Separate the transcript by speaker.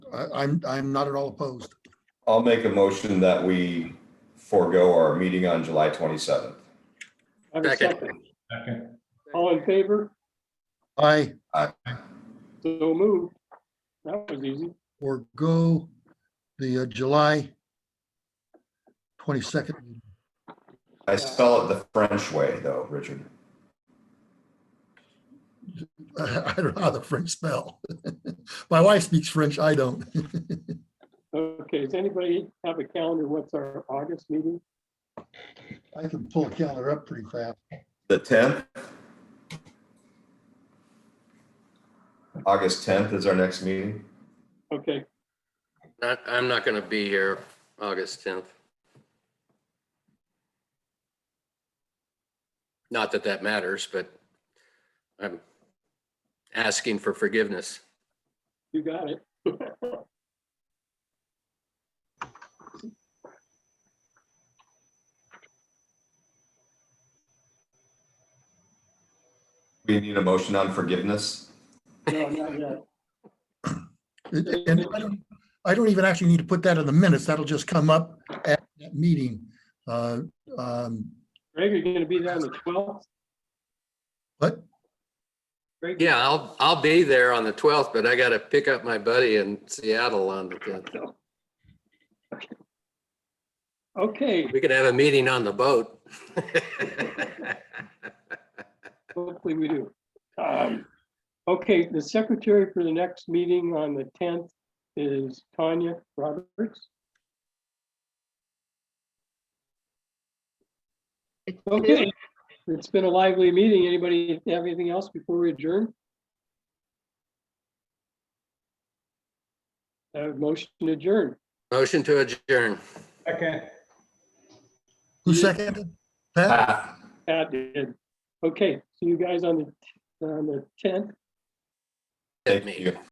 Speaker 1: I, I'm, I'm not at all opposed.
Speaker 2: I'll make a motion that we forego our meeting on July 27th.
Speaker 3: I have a
Speaker 4: Second.
Speaker 3: second.
Speaker 5: Second,
Speaker 3: All in favor?
Speaker 1: I
Speaker 3: So moved. That was easy.
Speaker 1: forego the uh, July 22nd. meeting.
Speaker 2: I spell it the French way, though, Richard.
Speaker 1: I don't know how the French spell. My wife speaks French, I don't.
Speaker 3: Okay, does anybody have a calendar? What's our August meeting?
Speaker 1: I can pull a calendar up pretty fast.
Speaker 2: The 10th? August 10th is our next meeting.
Speaker 3: Okay,
Speaker 4: Not, I'm not going to be here August 10th. Not that that matters, but I'm asking for forgiveness.
Speaker 3: you got it.
Speaker 2: We need a motion on forgiveness.
Speaker 3: No, not yet.
Speaker 1: And and I don't, I don't even actually need to put that in the minutes. That'll just come up at that meeting. Uh, um,
Speaker 3: Greg, are you gonna be there on the twelfth?
Speaker 1: What?
Speaker 3: Greg,
Speaker 4: Yeah, I'll, I'll be there on the 12th, but I got to pick up my buddy in Seattle on the 10th.
Speaker 3: okay,
Speaker 4: We could have a meeting on the boat.
Speaker 3: hopefully we do. Um, Okay, the secretary for the next meeting on the tenth is Tanya Roberts.
Speaker 6: It's two.
Speaker 3: Okay, it's been a lively meeting. Anybody have anything else before we adjourn? Uh, motion to adjourn.
Speaker 4: Motion to adjourn.
Speaker 5: second.
Speaker 1: Who seconded? Pat?
Speaker 2: Ah,
Speaker 3: Pat did. Okay, see you guys on the, on the tenth.
Speaker 4: Hit
Speaker 2: Thank
Speaker 4: me.
Speaker 2: you.